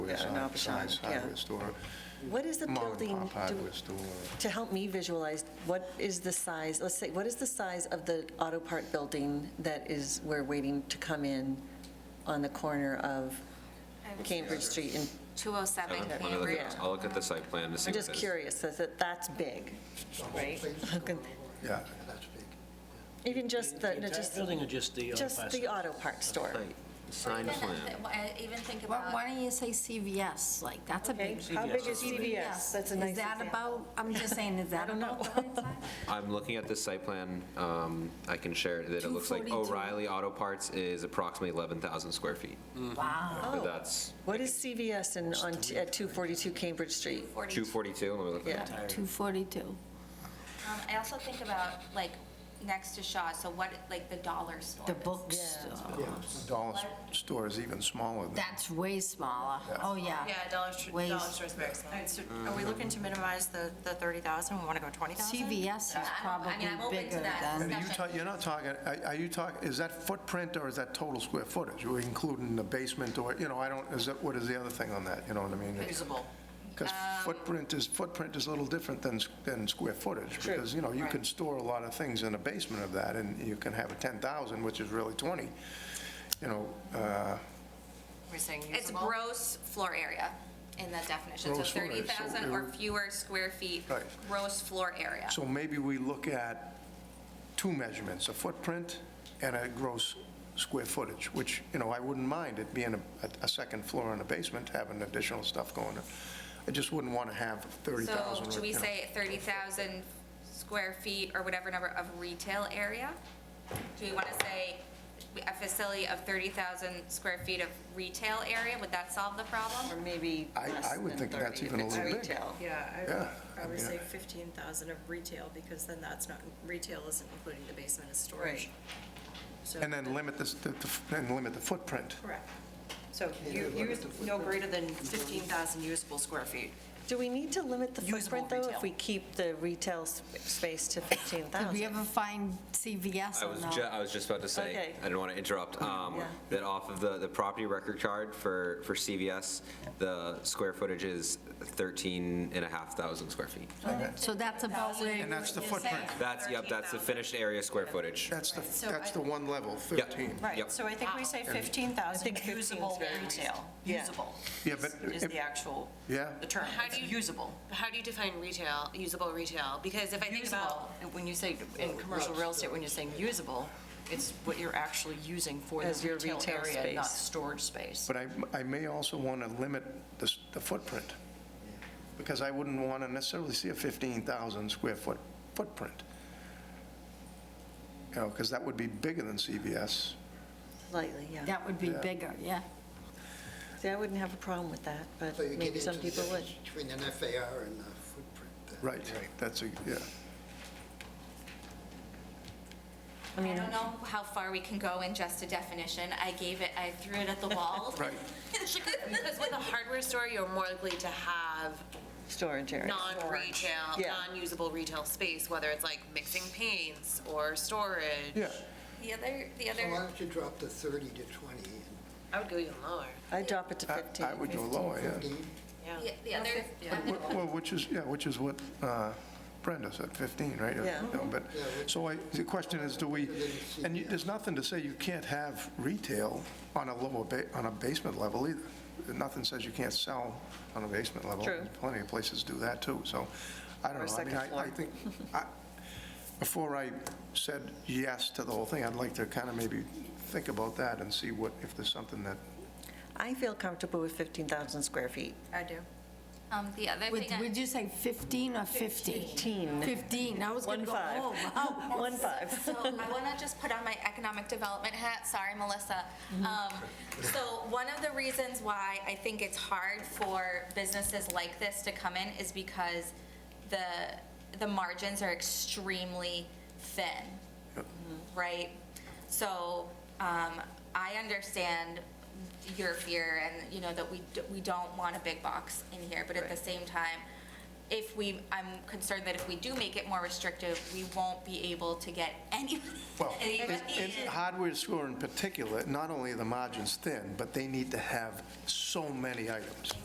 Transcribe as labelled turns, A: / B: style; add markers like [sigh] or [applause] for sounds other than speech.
A: yeah,
B: an
A: an
B: off-size
A: Alpacon, yeah.
B: uh, hardware store.
A: What is the
B: mom and
A: building,
B: pop
A: do-
B: hardware store.
A: to help me visualize, what is the size, let's say, what is the size of the auto part building that is, we're waiting to come in on the corner of Cambridge Street? And
C: 207
D: One of
C: Cambridge.
A: Yeah.
D: the- I'll look at the site plan to see
A: I'm
D: what
A: just
D: that is.
A: curious, that, that- that's big, right? [laughs]
B: Yeah,
A: Even just the,
E: The entire
A: just,
E: building or just the? uh,
A: just
E: plastic?
A: the auto part store.
D: Site, Sign
C: Then,
D: plan.
C: uh, I Even think
F: Why
C: about.
F: why don't you say CVS, like, that's a
A: Okay,
F: big.
A: how big is
F: CVS.
A: CVS? That's a nice
F: Is that
A: example.
F: about, I'm
A: [laughs]
F: just saying, is that
A: don't
F: about
A: know.
F: the
A: [laughs]
F: right size?
D: I'm looking at this site plan, um, I can share it, that it looks like
F: 242.
D: O'Reilly Auto Parts is approximately 11,000 square feet.
F: Wow.
D: But
A: Oh.
D: that's
A: What is CVS in, on, t- at 242 Cambridge Street?
D: 242, let me look
A: Yeah.
D: at that.
F: 242.
C: Um, I also think about, like, next to Shaw, so what, like, the dollar store.
F: The
C: is.
F: bookstore.
B: dollar store is even smaller than.
F: That's way smaller. Oh, yeah.
G: Yeah, Dollar Store,
F: Ways.
G: Dollar Store is very small.
A: Mm.
G: Are we looking to minimize the, the 30,000? We want to go 20,000?
F: CVS is
C: I don't- I
F: probably
C: mean, I'm open to
F: bigger
C: that.
F: than,
B: And are you talk, you're not talking, are- are you talking, is that footprint or is that total square footage? Are we including the basement or, you know, I don't, is that, what is the other thing on that, you know what I mean?
G: Usable.
B: Because
A: Um,
B: footprint is, footprint is a little different than, s- than square footage. Because, you know, you can store a lot of things in the basement of that, and you can have a 10,000, which is really 20, you know, uh,
G: We're saying usable?
C: It's gross floor area in the definition, so
B: Gross floor area, so
C: 30,000
B: it
C: or
B: would-
C: fewer square feet,
B: Right.
C: gross floor area.
B: so maybe we look at two measurements, a footprint and a gross square footage, which, you know, I wouldn't mind it being a, a second floor and a basement, having additional stuff going in. I just wouldn't want to have 30,000.
C: So
B: or,
C: should we
B: you know.
C: say 30,000 square feet or whatever number of retail area? Do we want to say a facility of 30,000 square feet of retail area? Would that solve the
A: Or
C: problem?
A: maybe
B: I-
A: less
B: I would
A: than
B: think
A: 30
B: that's
A: if
B: even a
A: it's
B: little big.
A: retail.
B: Yeah,
H: Yeah,
B: I
H: I would
B: mean,
H: say
B: I-
H: 15,000 of retail, because then that's not, retail isn't including the basement as
A: Right.
H: storage. So-
B: And then limit this, the- the f- and limit the footprint.
H: Correct. So you use no greater than 15,000 usable square feet.
A: Do we need to limit the
H: Usable
A: footprint, though,
H: retail.
A: if we keep the retail s- space to
F: did we
A: 15,000?
F: ever find CVS
D: I
F: on
D: was
F: the-
D: ju, I was just about to say,
A: Okay.
D: I didn't want to interrupt, um,
A: Yeah.
D: that off of the, the property record card for, for CVS, the square footage is 13 and a half thousand square feet.
F: So that's about where
B: And that's the footprint.
D: That's, yep, that's the finished area square footage.
B: That's the, that's the one level,
D: Yep.
B: 13.
D: Yep.
H: So I think we say
A: I
H: 15,000
A: think 15 is
H: usable
A: very
H: retail.
A: Yeah.
H: Usable
B: Yeah,
H: is
B: but
H: is
B: if-
H: the actual,
B: Yeah.
H: the term.
G: How
H: It's
G: do you-
H: Usable.
G: How do you define retail, usable retail? Because if I think
H: Usable,
G: about,
H: when you say, in commercial real estate, when you're saying usable, it's what you're actually using for the
A: As your
H: retail
A: retail
H: area, not
A: space.
H: storage space.
B: But I, I may also want to limit the, s- the footprint, because I wouldn't want to necessarily see a 15,000 square foot footprint. You know, because that would be bigger than CVS.
A: Slightly, yeah.
F: That would be bigger, yeah.
A: See, I wouldn't have a problem with that, but
I: So you get
A: maybe
I: into
A: some
I: the
A: people would.
I: difference Between an FAR and a footprint. then.
B: Right, that's a, yeah.
C: I don't know how far we can go in just a definition. I gave it, I threw it at the wall.
B: Right.
G: because with a hardware store, you're more likely to have
A: Storage area.
G: non-retail,
A: Yeah.
G: non-usable retail space, whether it's like mixing paints or storage.
B: Yeah,
C: [laughs] The other, the
I: So why
C: other,
I: don't you drop the 30 to 20
G: I would go even lower.
A: I'd drop it to
B: I-
A: 15.
B: I would go lower,
I: and
B: yeah.
I: 15?
C: the- the other,
B: Wh- Well, which is, yeah, which is what uh, Brenda said, 15, right? Or-
A: Yeah.
B: no, But, so I, the question is, do we, and you- there's nothing to say you can't have retail on a lower, ba- on a basement level either. Nothing says you can't sell on a basement level.
A: True.
B: Plenty of places do that too, so I don't
A: Or
B: know. I mean,
A: second
B: I- I
A: floor.
B: think, I- before I said yes to the whole thing, I'd like to kind of maybe think about that and see what, if there's something that,
A: I feel comfortable with 15,000 square feet.
H: I do.
C: um, the other
F: Would,
C: thing. I-
F: would you say 15 or 50? 15. 15, I was going
A: One
F: to go,
A: five.
F: oh,
A: [laughs]
F: wow.
A: One five.
C: [laughs] So I want to just put on my economic development hat, sorry, Melissa.
F: Mm-hmm.
C: Um, So one of the reasons why I think it's hard for businesses like this to come in is because the, the margins are extremely thin, right? So um, I understand your fear and, you know, that we, d- we don't want a big box in here, but at the same time, if we, I'm concerned that if we do make it more restrictive, we won't be able to get any,
B: Well,
C: anybody
B: in
C: in.
B: in hardware store in particular, not only are the margins thin, but they need to have so many items.